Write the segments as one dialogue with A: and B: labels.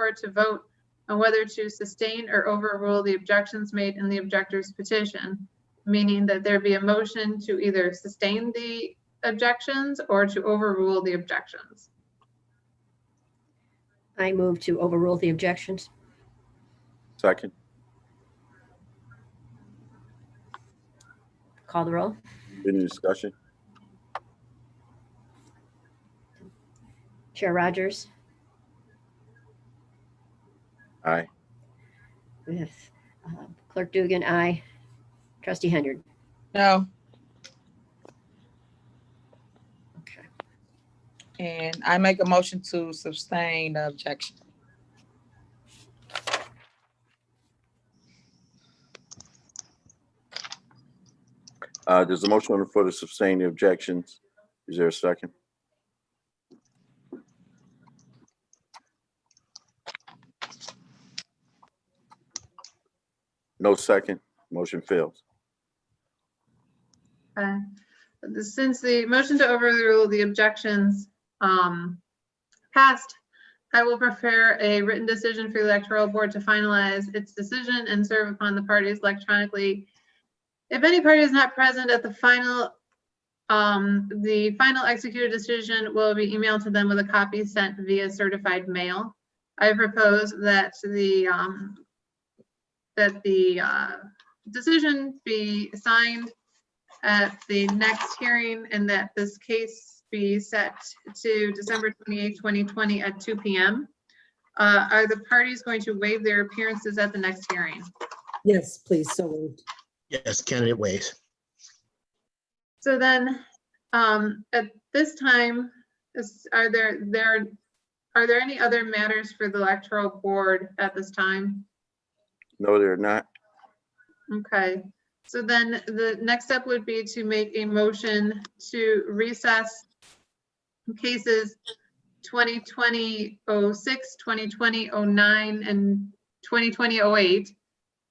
A: board to vote on whether to sustain or overrule the objections made in the objector's petition, meaning that there be a motion to either sustain the objections or to overrule the objections.
B: I move to overrule the objections.
C: Second.
B: Call the roll.
C: Any discussion?
B: Chair Rogers?
C: Aye.
B: Yes. Uh, Clerk Dugan, aye. Trustee Henyard?
D: No,
B: Okay.
D: and I make a motion to sustain the objection.
C: Uh, there's a motion on the floor to sustain the objections. Is there a second? No second, motion fails.
A: Okay. Uh, Since the motion to overrule the objections um, passed, I will prepare a written decision for the electoral board to finalize its decision and serve upon the parties electronically. If any party is not present at the final, um, the final executed decision will be emailed to them with a copy sent via certified mail. I propose that the, um, that the uh, decision be signed at the next hearing and that this case be set to December 28, 2020 at 2 PM. Uh, Are the parties going to waive their appearances at the next hearing?
E: Yes, please, so moved.
F: Yes, candidate ways.
A: So then, um, at this time, is, are there, there, are there any other matters for the electoral board at this time?
C: No, they're not.
A: Okay, so then the next step would be to make a motion to recess cases 2020-06, 2020-09, and 2020-08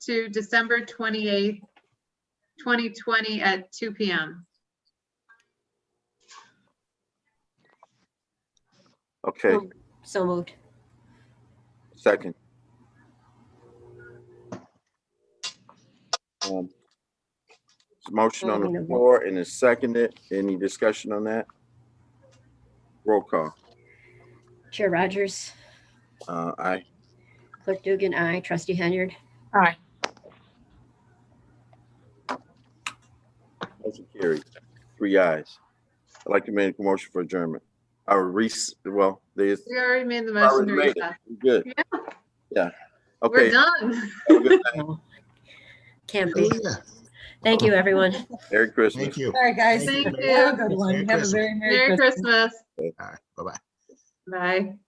A: to December 28th, 2020 at 2 PM.
C: Okay,
B: So moved.
C: second. Um, there's a Motion on the floor and it's seconded. Any discussion on that? Roll call.
B: Chair Rogers?
C: Uh, aye.
B: Clerk Dugan, aye. Trustee Henyard?
D: Aye.
C: Motion carried. Three ayes. I'd like to make a motion for adjournment. Our recess, well, there's,
A: We already made the motion
C: Already
A: to
C: made it.
A: recess.
C: we're good. Yeah.
A: We're
C: Okay.
A: done.
C: Have a good night.
B: Can't be.
F: Oh, yeah.
B: Thank you, everyone.
C: Merry Christmas.
F: Thank you.
E: All right, guys.
A: Thank
E: Have a
A: you.
E: good one.
F: Merry
E: Have a
F: Christmas.
E: very
A: Merry Christmas.
F: All right, bye-bye.
A: Bye.